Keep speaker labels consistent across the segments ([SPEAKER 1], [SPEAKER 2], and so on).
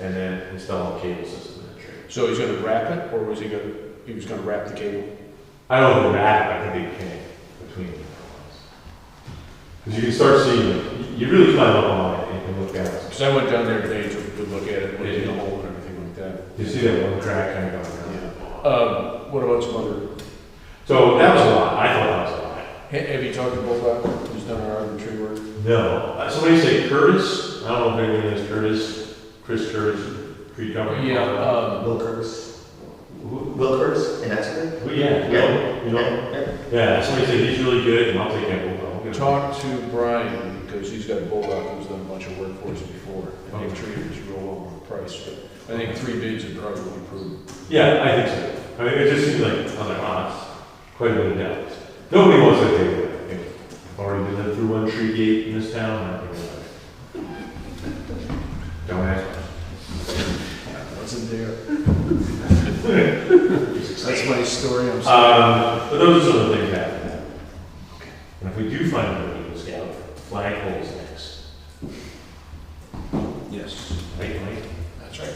[SPEAKER 1] and then install a cable system in the tree.
[SPEAKER 2] So he's gonna wrap it, or was he gonna, he was gonna wrap the cable?
[SPEAKER 1] I don't know that, but I think they connect between the ones. Because you can start seeing, you really climb up on it and you can look at it.
[SPEAKER 2] Because I went down there today to, to look at it, look in the hole and everything like that.
[SPEAKER 1] You see that one crack kind of going down.
[SPEAKER 2] Yeah. Um, what about some other,
[SPEAKER 1] So that was a lot, I thought that was a lot.
[SPEAKER 2] ha- have you talked to Bulldog, who's done our urban tree work?
[SPEAKER 1] No, Uh, somebody say Curtis, I don't know if anyone knows Curtis, Chris Curtis, tree company.
[SPEAKER 2] Yeah,
[SPEAKER 3] Uh,
[SPEAKER 2] um,
[SPEAKER 3] Wilkers,
[SPEAKER 1] Who-
[SPEAKER 3] Wilkers and Esser.
[SPEAKER 1] who- Yeah, Will, you know, yeah, somebody said he's really good, and I'll take that Bulldog. We'll get him.
[SPEAKER 2] talked to Brian, because he's got Bulldog, who's done a bunch of work for us before, and they've treated us real well on the price, but I think three bids would probably be prudent.
[SPEAKER 1] Yeah, I think so. I mean, it just seems like, I was like, oh, that's quite a bit of doubt. Nobody wants to take it. I think I've already been in through one tree gate in this town, and I think we're like, Don't ask.
[SPEAKER 2] Wasn't there? That's my story, I'm sorry.
[SPEAKER 1] Um, but those are some of the things that happen. And if we do find an Eagle Scout, flag holes next.
[SPEAKER 2] Yes.
[SPEAKER 1] Wait, wait.
[SPEAKER 4] That's right.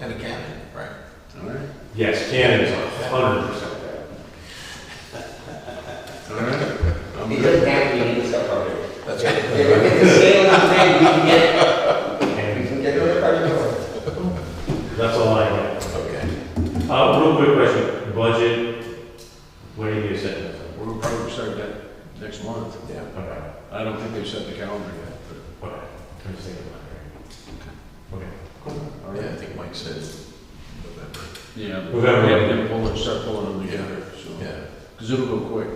[SPEAKER 4] And a cannon, right?
[SPEAKER 2] All right.
[SPEAKER 1] Yes, cannons are hundred percent.
[SPEAKER 2] All right. I'm
[SPEAKER 3] He
[SPEAKER 2] good.
[SPEAKER 3] doesn't have to be in the subcontractor.
[SPEAKER 4] That's
[SPEAKER 3] If
[SPEAKER 4] right.
[SPEAKER 3] we get the scale on that, we can get, we
[SPEAKER 1] And
[SPEAKER 3] can get another project going.
[SPEAKER 1] that's all I have.
[SPEAKER 4] Okay.
[SPEAKER 1] Uh, real quick question, budget, what do you set this
[SPEAKER 2] We'll probably start that next month.
[SPEAKER 4] Yeah.
[SPEAKER 1] on? Okay.
[SPEAKER 2] I don't think they've set the calendar yet,
[SPEAKER 1] Okay, I'm just thinking about it. Okay.
[SPEAKER 2] but, all
[SPEAKER 4] Yeah, I
[SPEAKER 2] right.
[SPEAKER 4] think Mike said November.
[SPEAKER 2] Yeah. but We
[SPEAKER 1] November.
[SPEAKER 2] have to pull it, start pulling them together, so,
[SPEAKER 4] Yeah.
[SPEAKER 2] because it'll go quick.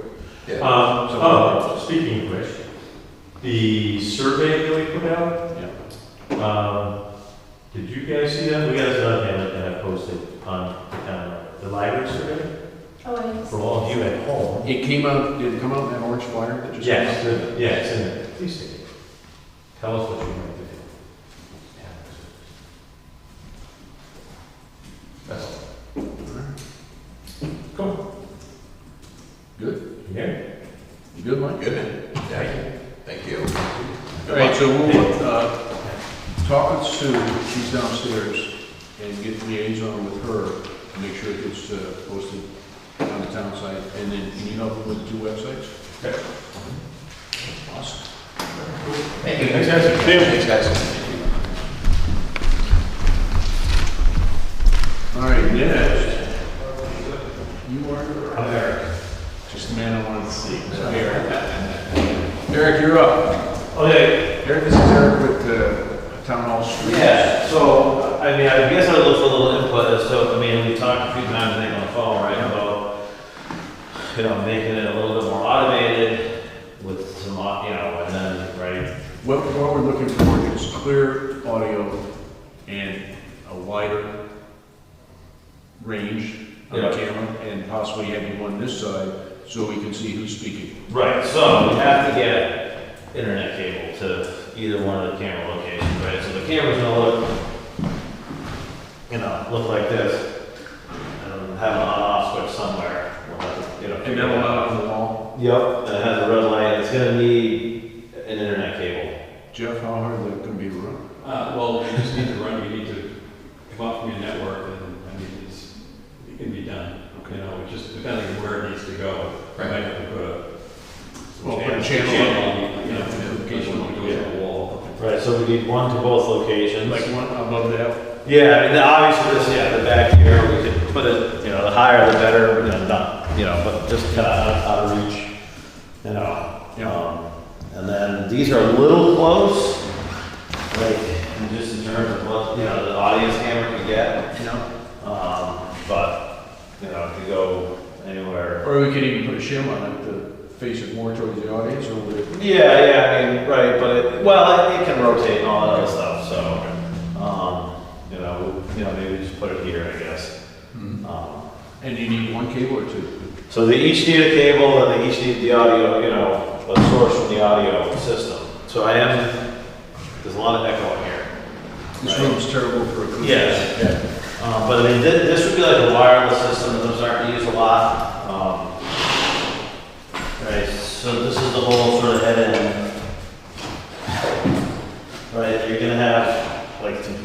[SPEAKER 4] Yeah.
[SPEAKER 1] Um, oh, speaking of which, the survey that we put out,
[SPEAKER 2] Yeah.
[SPEAKER 1] um, did you guys see that? We got another thing that I posted on, um, the library survey
[SPEAKER 5] Oh, I didn't
[SPEAKER 1] for all of you at home.
[SPEAKER 2] It came out, did it come out in that orange flyer that just? came
[SPEAKER 1] Yes,
[SPEAKER 2] out?
[SPEAKER 1] the- yeah, it's in there. Please take it. Tell us what you want to do. That's all. Cool.
[SPEAKER 2] Good,
[SPEAKER 1] Yeah.
[SPEAKER 2] you good, Mike?
[SPEAKER 4] Good. man. Yeah. Thank you.
[SPEAKER 2] All right, so we'll, uh, talk with Sue, she's downstairs, and get liaison with her, to make sure it gets uh, posted on the town site, and then can you help with the two websites?
[SPEAKER 1] Okay.
[SPEAKER 2] Awesome.
[SPEAKER 3] Thank you.
[SPEAKER 1] Thanks, guys.
[SPEAKER 4] Thanks, guys.
[SPEAKER 2] All right, next. You are?
[SPEAKER 1] I'm there.
[SPEAKER 2] Just the man I wanted to see. Eric. Eric, you're up.
[SPEAKER 1] Oh,
[SPEAKER 6] Okay,
[SPEAKER 2] Eric, this is Eric with uh, Town Hall Street.
[SPEAKER 6] yeah, so, I mean, I guess I would look for a little input as to, I mean, we talked a few times, I think, on the phone, right, about, you know, making it a little bit more automated with some, au- you know, and then, right,
[SPEAKER 2] What, what we're looking for is clear audio and a wider range on the
[SPEAKER 6] Yeah.
[SPEAKER 2] camera, and possibly having one this side, so we can see who's speaking.
[SPEAKER 6] right, so we have to get internet cable to either one of the camera locations, right, so the camera's gonna look, you know, look like this, and have an on-off switch somewhere, we'll have to, you know.
[SPEAKER 2] And
[SPEAKER 6] figure
[SPEAKER 2] then
[SPEAKER 6] it out.
[SPEAKER 2] allow on the wall.
[SPEAKER 6] Yep, and it has a red light, it's gonna need an internet cable.
[SPEAKER 2] Jeff, how hard is that gonna be to run?
[SPEAKER 7] Uh, well, you just need to run, you need to come up from your network, and, I mean, it's, it can be done. You know, it just depending on where it needs to go. You Might have to put a.
[SPEAKER 2] Well, put a
[SPEAKER 7] Channel,
[SPEAKER 2] channel
[SPEAKER 7] on, you know, in case you want to go to the wall.
[SPEAKER 6] Right, so we need one to both
[SPEAKER 2] up,
[SPEAKER 6] locations.
[SPEAKER 2] like one above that.
[SPEAKER 6] Yeah, I mean, the- obviously this, yeah, the back here, we could put it, you know, the higher the better, you know, not, you know, but just kinda out, out of reach, you know.
[SPEAKER 2] Yeah.
[SPEAKER 6] Um, And then these are a little close, like, in just in terms of what, you know, the audience camera can get,
[SPEAKER 2] You know?
[SPEAKER 6] um, but, you know, it could go anywhere.
[SPEAKER 2] Or we could even put a shim on it to face it more towards the audience, or would it?
[SPEAKER 6] Yeah, yeah, I mean, right, but it, well, it, it can rotate and all that other stuff, so, um, you know, you know, maybe just put it here, I guess. Um,
[SPEAKER 2] Mm-hmm. And you need one cable or two?
[SPEAKER 6] So they each need a cable, and they each need the audio, you know, a source from the audio system. So I am, there's a lot of echo in here.
[SPEAKER 2] This
[SPEAKER 6] Right.
[SPEAKER 2] room's terrible for acoustics.
[SPEAKER 6] Yes.
[SPEAKER 2] Yeah.
[SPEAKER 6] Um, but I mean, this, this would be like a wireless system, those aren't used a lot. Um, right, so this is the whole sort of head end. Right, you're gonna have like some